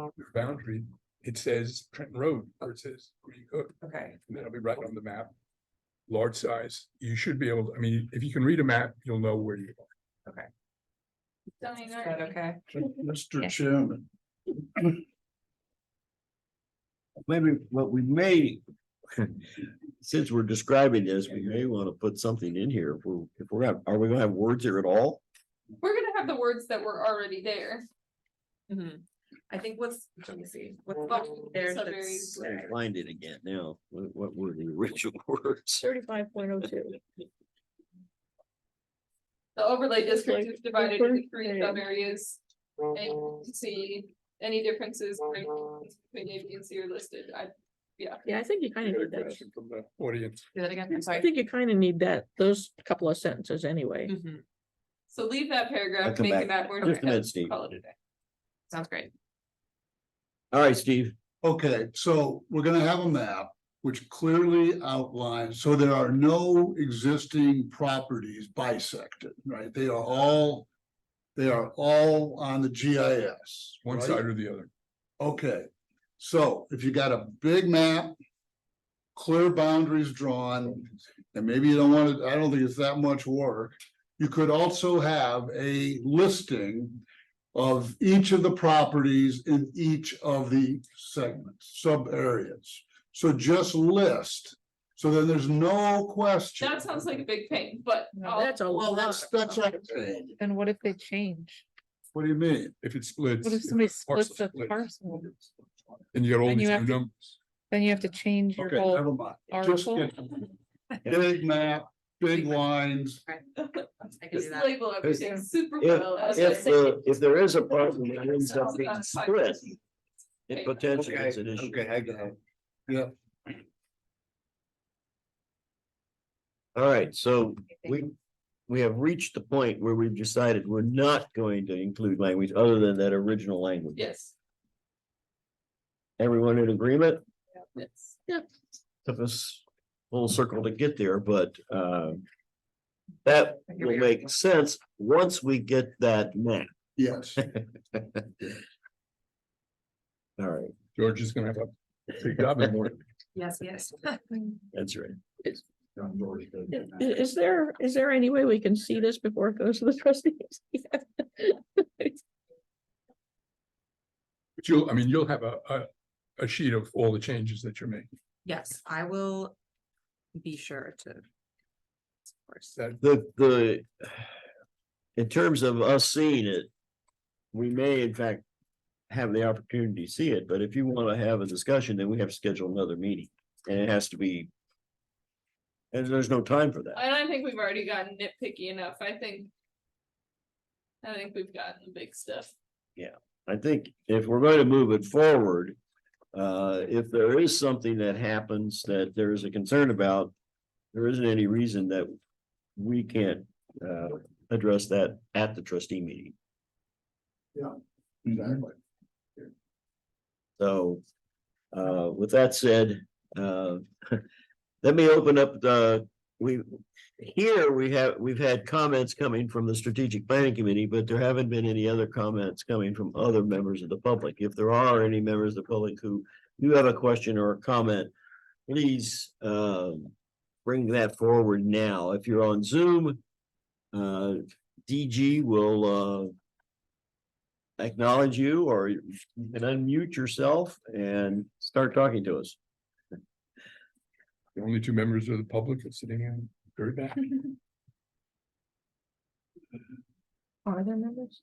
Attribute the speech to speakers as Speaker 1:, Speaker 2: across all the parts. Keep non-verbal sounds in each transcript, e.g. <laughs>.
Speaker 1: on your boundary, it says Trenton Road, or it says Green Hook,
Speaker 2: okay,
Speaker 1: and that'll be right on the map. Large size, you should be able, to. I mean, if you can read a map, you'll know where you are.
Speaker 3: Zoning
Speaker 2: is that
Speaker 3: ordinance.
Speaker 2: okay?
Speaker 4: <laughs>
Speaker 5: Yeah.
Speaker 6: Mr. Chairman. Maybe what we may. <laughs> Since we're describing this, we may want to put something in here. If we're, if we're, gonna- are we gonna have words here at all?
Speaker 3: We're gonna have the words that were already there.
Speaker 2: Mhm. I think what's, let me see, what's left there
Speaker 3: So very
Speaker 2: that's
Speaker 3: rare.
Speaker 6: Find it again now. What, what were the original <laughs> words?
Speaker 5: Thirty-five point oh two.
Speaker 3: The overlay district is divided into three
Speaker 5: Like,
Speaker 3: sub areas. And you can see any differences or any differences between A, B, and C are listed. I,
Speaker 5: Yeah, I think you kind
Speaker 1: You
Speaker 5: of
Speaker 1: got a
Speaker 5: need that.
Speaker 1: question From the audience,
Speaker 2: Do that again, I'm <laughs>
Speaker 5: I
Speaker 2: sorry.
Speaker 5: think you kind of need that, those couple of sentences anyway.
Speaker 7: Mm.
Speaker 2: Mhm.
Speaker 3: so leave that
Speaker 6: I'll
Speaker 3: paragraph,
Speaker 6: come
Speaker 3: make
Speaker 6: back.
Speaker 3: it that word.
Speaker 6: Just a minute, Steve.
Speaker 3: Call it a day.
Speaker 2: Sounds great.
Speaker 6: All right, Steve.
Speaker 8: Okay, so we're gonna have a map which clearly outlines, so there are no existing properties bisected, right? They are all. They are all on the GIS.
Speaker 1: one
Speaker 8: right?
Speaker 1: side or the other.
Speaker 8: Okay, so if you got a big map. Clear boundaries drawn, and maybe you don't want to, I don't think it's that much work. You could also have a listing. Of each of the properties in each of the segments, sub areas. So just list, so then there's no question.
Speaker 3: That sounds like a big pain, but
Speaker 5: No,
Speaker 3: I'll-
Speaker 5: Oh, That's a
Speaker 8: Well,
Speaker 5: lot.
Speaker 8: that's, that's what I'm saying.
Speaker 4: Then what if they change?
Speaker 8: What do you mean?
Speaker 1: If it splits.
Speaker 4: What if
Speaker 1: if
Speaker 4: somebody
Speaker 1: the parcel
Speaker 4: splits the
Speaker 1: splits,
Speaker 4: parcel?
Speaker 1: And you got all
Speaker 4: Then
Speaker 1: these
Speaker 4: you
Speaker 1: new
Speaker 4: have to-
Speaker 1: numbers.
Speaker 4: Then you have to change your
Speaker 8: Okay,
Speaker 4: whole,
Speaker 8: never mind. Just
Speaker 4: article?
Speaker 8: get- Big map, big lines.
Speaker 2: I can do
Speaker 3: just
Speaker 2: that.
Speaker 3: label everything super
Speaker 6: if-
Speaker 3: well. as I
Speaker 6: If,
Speaker 3: say.
Speaker 6: the- if there is a problem, it ends up
Speaker 3: Sounds
Speaker 6: being
Speaker 3: about five
Speaker 6: split.
Speaker 3: percent.
Speaker 6: It potentially
Speaker 8: Okay,
Speaker 6: is an issue.
Speaker 8: okay, I get it. Yep.
Speaker 6: All right, so we, we have reached the point where we've decided we're not going to include language other than that original language.
Speaker 3: Yes,
Speaker 6: Everyone in agreement?
Speaker 3: yes.
Speaker 6: Took us a little circle to get there, but, um. That
Speaker 2: Here we
Speaker 6: will
Speaker 2: are.
Speaker 6: make sense once we get that map.
Speaker 8: Yes,
Speaker 6: All right,
Speaker 1: George is gonna have a big job in the <laughs> morning.
Speaker 2: Yes, yes.
Speaker 6: that's right.
Speaker 5: I- i- Is there, is there any way we can see this before it goes to the <laughs> trustees?
Speaker 1: But you'll, I mean, you'll have a, a, a sheet of all the changes that you're making.
Speaker 2: Yes, I will be sure to. Of course.
Speaker 1: That,
Speaker 6: The, the. In terms of us seeing it. We may in fact. Have the opportunity to see it, but if you want to have a discussion, then we have to schedule another meeting and it has to be. And there's no time for that.
Speaker 3: And I think we've already gotten nitpicky enough. I think. I think we've gotten the big stuff.
Speaker 6: I think if we're going to move it forward. Uh, if there is something that happens that there is a concern about. There isn't any reason that we can't uh address that at the trustee meeting.
Speaker 8: exactly.
Speaker 6: So, uh, with that said, uh, <laughs> let me open up the, we, here we have, we've had comments coming from the strategic planning committee, but there haven't been any other comments coming from other members of the public. If there are any members of the public who do have a question or a comment, please, um, bring that forward now. If you're on Zoom, uh, DG will, uh, acknowledge you or you can unmute yourself and start talking to us.
Speaker 1: the only two members of the public are sitting in very back.
Speaker 5: Are there members?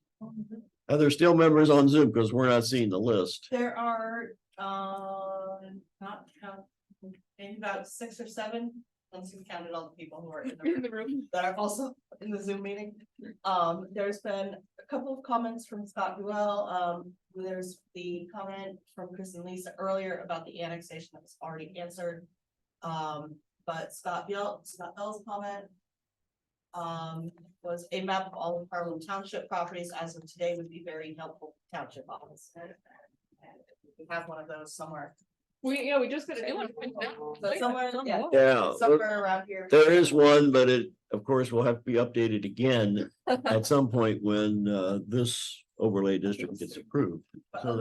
Speaker 6: Are there still members on Zoom? Because we're not seeing the list.
Speaker 7: There are, um, not count, maybe about six or seven, once you've counted all the people who are in the room
Speaker 3: the room.
Speaker 7: that are also <laughs> in the Zoom meeting. Um, there's been a couple of comments from Scott Ruel, um, there's the comment from Chris and Lisa earlier about the annexation that was already answered. Um, but Scott Bell, Scott Bell's comment. Um, was a map of all of Harlem Township properties as of today would be very helpful to township office. And We have one of those somewhere,
Speaker 3: We, yeah, we just gotta do one.
Speaker 7: So somewhere, yeah,
Speaker 6: Yeah,
Speaker 7: somewhere around here.
Speaker 6: Oh, there is one, but it, of course, will have to be updated again at some point when uh this overlay district gets approved.
Speaker 7: But
Speaker 6: so